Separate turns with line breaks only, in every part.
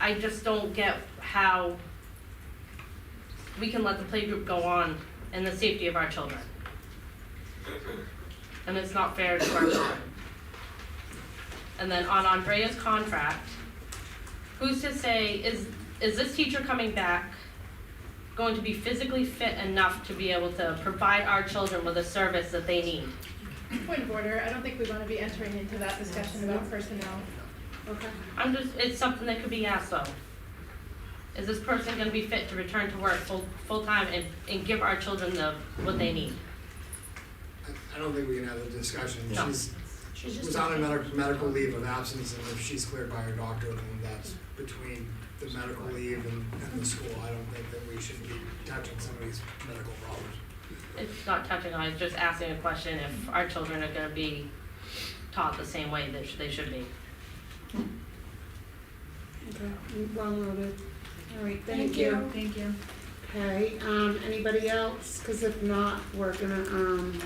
I just don't get how we can let the playgroup go on in the safety of our children. And it's not fair to our children. And then on Andrea's contract, who's to say, is, is this teacher coming back going to be physically fit enough to be able to provide our children with a service that they need?
Point of order, I don't think we wanna be entering into that discussion about personnel.
Okay.
I'm just, it's something that could be asked though. Is this person gonna be fit to return to work full, full-time and, and give our children the, what they need?
I- I don't think we can have a discussion.
No.
She's, was on a medical, medical leave of absence, and if she's cleared by her doctor, then that's between the medical leave and, and the school. I don't think that we should be touching somebody's medical problems.
It's not touching on, it's just asking a question if our children are gonna be taught the same way that sh- they should be.
Okay, well noted. All right, thank
Thank
you.
you. Thank you.
Okay, um, anybody else? Cause if not, we're gonna, um,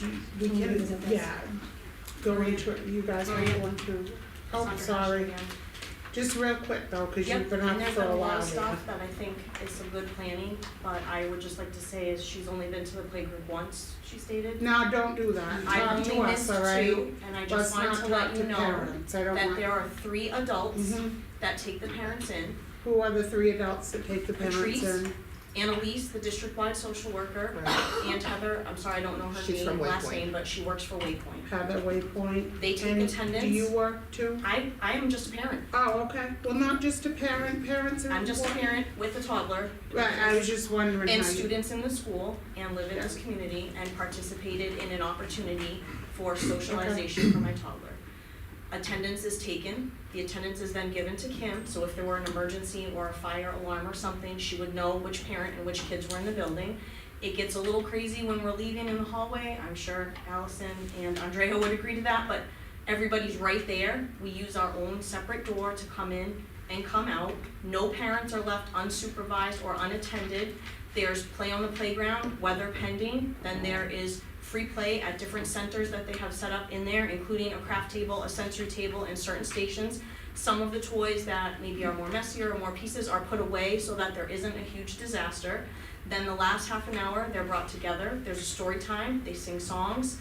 we
We'll
can,
revisit this.
yeah, go into it, you guys are going through. Oh, sorry, just real quick though, cause you've
Yep,
been up
and there's
for
been
a
a lot
while
of
now.
stuff that I think is some good planning, but I would just like to say is she's only been to the playgroup once, she stated.
No, don't do that, talk to us, all
I
right?
only missed two, and I just wanted to let you
Let's not talk to
know
parents, I don't
that
want.
there are three adults
Mhm.
that take the parents in.
Who are the three adults that take the parents
Patrice,
in?
Annalise, the district-wide social worker,
Right.
and Heather, I'm sorry, I don't know her
She's from
name, last
Waypoint.
name, but she works for Waypoint.
Heather Waypoint.
They take
And
attendance.
Do you work too?
I, I am just a parent.
Oh, okay, well, not just a parent, parents are important.
I'm just a parent with a toddler.
Right, I was just wondering how you.
and students in the school and live in this
Yeah.
community and participated in an opportunity for socialization for my toddler. Attendance is taken, the attendance is then given to Kim, so if there were an emergency or a fire alarm or something, she would know which parent and which kids were in the building. It gets a little crazy when we're leaving in the hallway, I'm sure Allison and Andrea would agree to that, but everybody's right there. We use our own separate door to come in and come out. No parents are left unsupervised or unattended. There's play on the playground, weather pending, then there is free play at different centers that they have set up in there, including a craft table, a sensory table, and certain stations. Some of the toys that maybe are more messier or more pieces are put away so that there isn't a huge disaster. Then the last half an hour, they're brought together, there's a story time, they sing songs,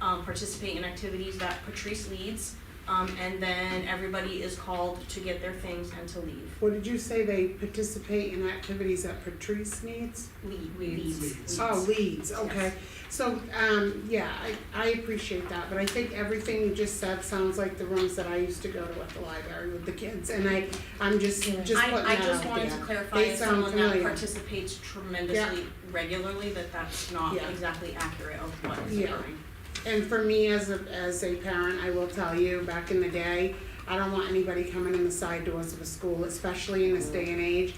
um, participate in activities that Patrice leads, um, and then everybody is called to get their things and to leave.
What did you say they participate in activities that Patrice needs?
Lead,
Leads.
leads,
Leads.
leads.
Oh, leads,
Yes.
okay. So, um, yeah, I, I appreciate that, but I think everything you just said sounds like the rooms that I used to go to at the library with the kids, and I, I'm just, just putting that out there.
I, I just wanted to clarify,
They
as
sound
someone that
familiar.
participates tremendously regularly, that that's not
Yeah.
exactly accurate of what is
Yeah.
occurring.
And for me as a, as a parent, I will tell you, back in the day, I don't want anybody coming in the side doors of a school, especially in this day and age.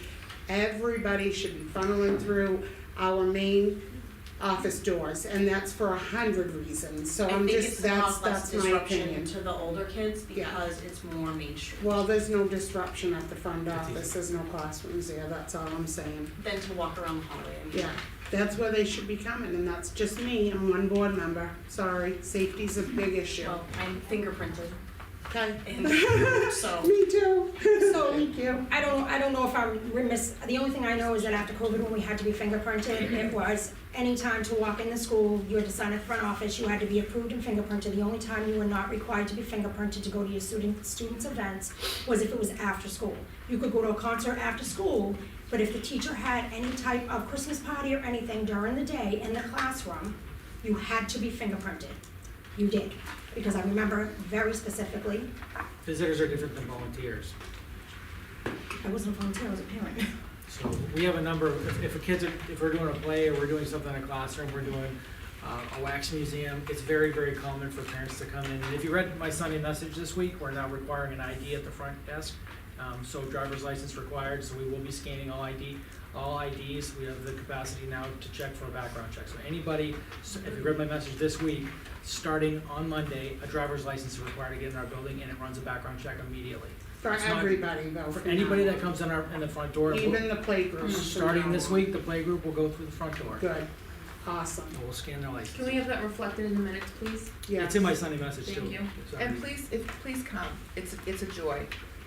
Everybody should be funneling through our main office doors, and that's for a hundred reasons, so I'm just, that's, that's my opinion.
I think it's caused less disruption to the older kids
Yeah.
because it's more mainstream
Well, there's no disruption at the front office, there's no classrooms there, that's all I'm saying.
than to walk around the hallway. I mean,
Yeah, that's where they should be coming, and that's just me, I'm one board member, sorry, safety's a big issue,
Well, I'm fingerprinted
okay?
and so,
Me too,
So-
thank you.
I don't, I don't know if I'm remiss, the only thing I know is that after COVID, when we had to be fingerprinted, it was any time to walk in the school, you had to sign at the front office, you had to be approved and fingerprinted. The only time you were not required to be fingerprinted to go to your student, students' events was if it was after school. You could go to a concert after school, but if the teacher had any type of Christmas party or anything during the day in the classroom, you had to be fingerprinted. You did, because I remember very specifically,
Visitors are different than volunteers.
I wasn't a volunteer, I was a parent.
So we have a number, of- if, if a kid's, if we're doing a play or we're doing something in a classroom, we're doing uh, a wax museum, it's very, very common for parents to come in. And if you read my Sunday message this week, we're now requiring an ID at the front desk. Um, so driver's license required, so we will be scanning all ID, all IDs. We have the capacity now to check for a background check. So anybody, so if you read my message this week, starting on Monday, a driver's license is required to get in our building and it runs a background check immediately.
For
It's not-
everybody though.
For
from
anybody
now
that
on.
comes in our, in the front door, we'll-
Even the playgroup.
Starting this week, the playgroup will go through the front door.
Good, awesome,
And we'll scan their
Can
license.
we have that reflected in the minutes, please?
yeah.
It's in my Sunday message too.
Thank you.
So-
And please, if, please come, it's, it's a joy.